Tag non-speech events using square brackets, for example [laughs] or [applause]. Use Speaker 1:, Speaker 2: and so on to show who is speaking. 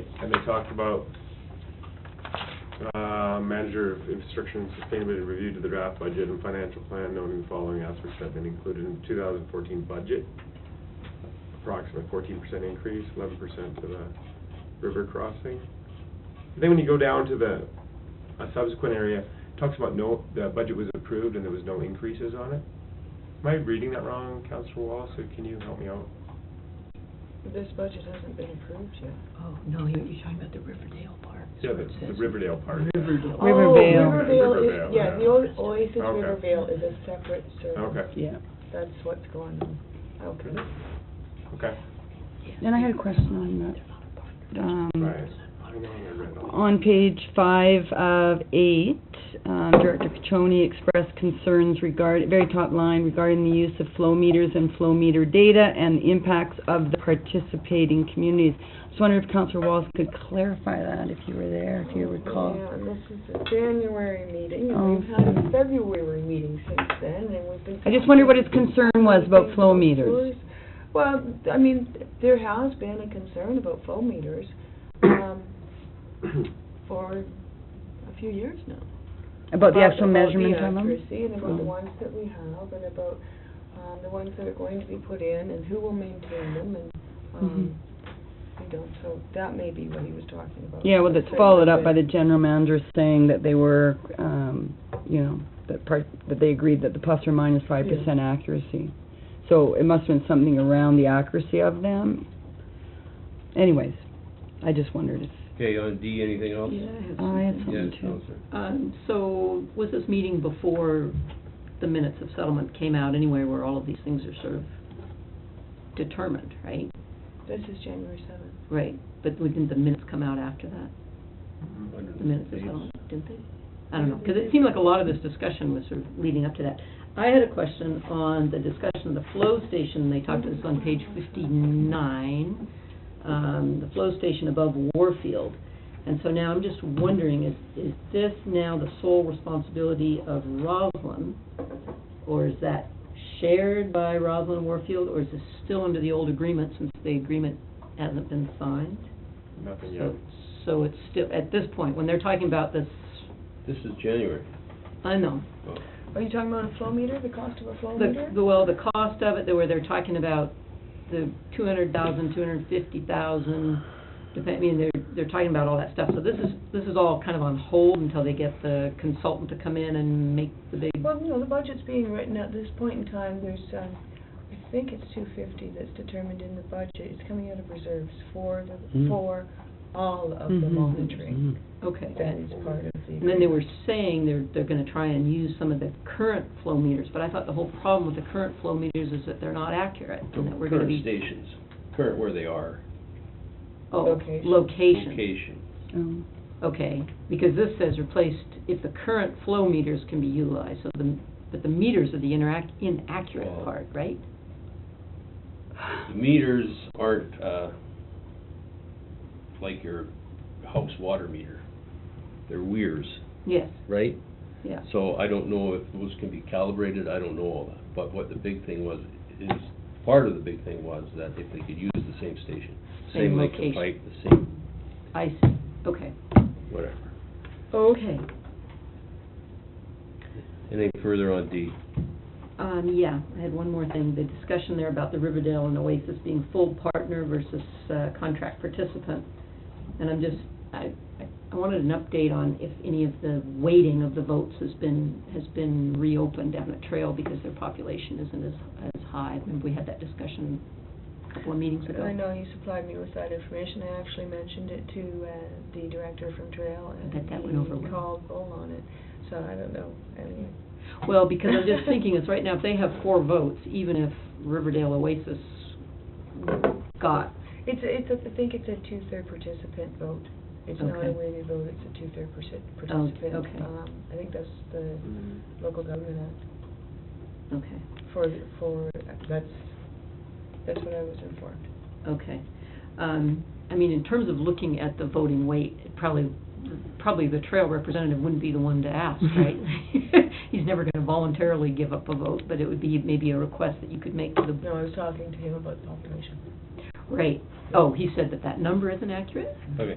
Speaker 1: and they talked about, uh, manager of infrastructure and sustainability review to the draft budget and financial plan, noting the following aspects have been included in the two thousand fourteen budget. Approximate fourteen percent increase, eleven percent to the river crossing. Then when you go down to the, a subsequent area, it talks about no, the budget was approved and there was no increases on it. Am I reading that wrong, Counselor Wallace, or can you help me out?
Speaker 2: This budget hasn't been approved yet.
Speaker 3: Oh, no, you're, you're talking about the Riverdale Park. is
Speaker 1: Yeah,
Speaker 3: what
Speaker 1: the,
Speaker 3: it
Speaker 1: the
Speaker 3: says.
Speaker 1: Riverdale part.
Speaker 4: Riverdale.
Speaker 2: Oh,
Speaker 5: Rivervale.
Speaker 2: Rivervale
Speaker 1: Rivervale,
Speaker 2: is, yeah, the
Speaker 1: yeah.
Speaker 2: O- Oasis
Speaker 1: Okay.
Speaker 2: Rivervale is a separate service.
Speaker 1: Okay,
Speaker 4: Yeah.
Speaker 2: That's what's going on. Okay.
Speaker 1: okay.
Speaker 5: Then I had a question on that. Um,
Speaker 1: Right. I know I read all-
Speaker 5: On page five of eight, um, Director Caccioni expressed concerns regard, very top line, regarding the use of flow meters and flow meter data and the impacts of the participating communities. Just wondered if Councillor Wallace could clarify that, if you were there, if you recall.
Speaker 2: Yeah, and this is a January meeting,
Speaker 5: Oh.
Speaker 2: and we've had a February meeting since then, and we've been.
Speaker 5: I just wondered what his concern was about flow meters.
Speaker 2: Well, I mean, there has been a concern about flow meters, um, for a few years now.
Speaker 5: About the actual
Speaker 2: about the
Speaker 5: measurement on them?
Speaker 2: accuracy and about the
Speaker 5: Oh.
Speaker 2: ones that we have and about, um, the ones that are going to be put in and who will maintain them and, um, you know, so that may be what he was talking about.
Speaker 5: Mm-hmm. Yeah, well, that's
Speaker 2: Certainly
Speaker 5: followed up by the
Speaker 2: could-
Speaker 5: general manager saying that they were, um, you know, that part, that they agreed that the plus or minus five percent accuracy. So it must have been something around the accuracy of them. Anyways, I just wondered if,
Speaker 6: Okay, on D, anything else?
Speaker 3: Yeah, I have
Speaker 5: I had
Speaker 3: something.
Speaker 6: Yes,
Speaker 5: something too.
Speaker 6: Counselor.
Speaker 3: Um, so, was this meeting before the minutes of settlement came out anyway, where all of these things are sort of determined, right?
Speaker 2: This is January seventh.
Speaker 3: Right, but didn't the minutes come out after that?
Speaker 6: Under
Speaker 3: the minutes of
Speaker 6: page-
Speaker 3: settlement, didn't they? I don't know, because it seemed like a lot of this discussion was sort of leading up to that. I had a question on the discussion of the flow station, they talked to this on page fifty-nine, um, the flow station above Warfield. And so now I'm just wondering, is, is this now the sole responsibility of Roslin? Or is that shared by Roslin and Warfield, or is this still under the old agreement since the agreement hasn't been signed?
Speaker 1: [clears throat] Nothing yet.
Speaker 3: So, so it's still, at this point, when they're talking about this,
Speaker 6: This is January.
Speaker 3: I know,
Speaker 6: Oh,
Speaker 2: Are you talking about a flow meter, the cost of a flow
Speaker 3: the,
Speaker 2: meter?
Speaker 3: the- well, the cost of it, they were, they're talking about the two hundred thousand, two hundred and fifty thousand, depend, I mean, they're, they're talking about all that stuff, so this is, this is all kind of on hold until they get the consultant to come in and make the big,
Speaker 2: Well, you know, the budget's being written at this point in time, there's, um, I think it's two fifty that's determined in the budget, it's coming out of reserves for the,
Speaker 5: Mm-hmm.
Speaker 6: Hmm.
Speaker 2: for all of the
Speaker 5: Mhm.
Speaker 2: monitoring
Speaker 3: okay.
Speaker 2: that is part of the.
Speaker 3: And then they were saying they're, they're gonna try and use some of the current flow meters, but I thought the whole problem with the current flow meters is that they're not accurate, and that we're gonna
Speaker 6: Current
Speaker 3: be,
Speaker 6: stations, current where they are,
Speaker 3: oh,
Speaker 2: Location.
Speaker 3: location.
Speaker 6: location.
Speaker 5: Um,
Speaker 3: Okay, because this says replaced if the current flow meters can be utilized, so the, but the meters are the interact, inaccurate
Speaker 6: Well-
Speaker 3: part, right?
Speaker 6: The meters aren't, uh, like your house water meter. They're weirs,
Speaker 3: Yes,
Speaker 6: right?
Speaker 3: yeah.
Speaker 6: So I don't know if those can be calibrated, I don't know all that. But what the big thing was, is, part of the big thing was that if they could use the same station,
Speaker 3: Same
Speaker 6: same length of
Speaker 3: location.
Speaker 6: pipe, the same,
Speaker 3: I see, okay.
Speaker 6: whatever.
Speaker 3: Okay.
Speaker 6: Anything further on D?
Speaker 3: Um, yeah, I had one more thing, the discussion there about the Riverdale and Oasis being full partner versus, uh, contract participant. And I'm just, I, I- I wanted an update on if any of the weighting of the votes has been, has been reopened down at Trail because their population isn't as, as high. Remember, we had that discussion a couple of meetings ago.
Speaker 2: I know you supplied me with that information, I actually mentioned it to, uh, the director from Trail, and
Speaker 3: bet that went over
Speaker 2: he
Speaker 3: well.
Speaker 2: called Bull on it, so I don't know, anyway.
Speaker 3: Well, because I'm just thinking, it's right now, if they have four votes, even if Riverdale Oasis got,
Speaker 2: It's, it's, a- I think it's a two-third participant vote, it's not
Speaker 3: Okay.
Speaker 2: a weighted vote, it's a two-third perci-
Speaker 3: Oh,
Speaker 2: participant.
Speaker 3: okay.
Speaker 2: Um, I think that's the
Speaker 1: Mm.
Speaker 2: local government act,
Speaker 3: okay,
Speaker 2: for, for, that's, that's what I was informed.
Speaker 3: okay. Um, I mean, in terms of looking at the voting weight, it probably, probably the trail representative wouldn't be the one to ask, right? [laughs] He's never gonna voluntarily give up a vote, but it would be maybe a request that you could make to the,
Speaker 2: No, I was talking to him about the population.
Speaker 3: right, Oh, he said that that number isn't accurate?
Speaker 6: Okay.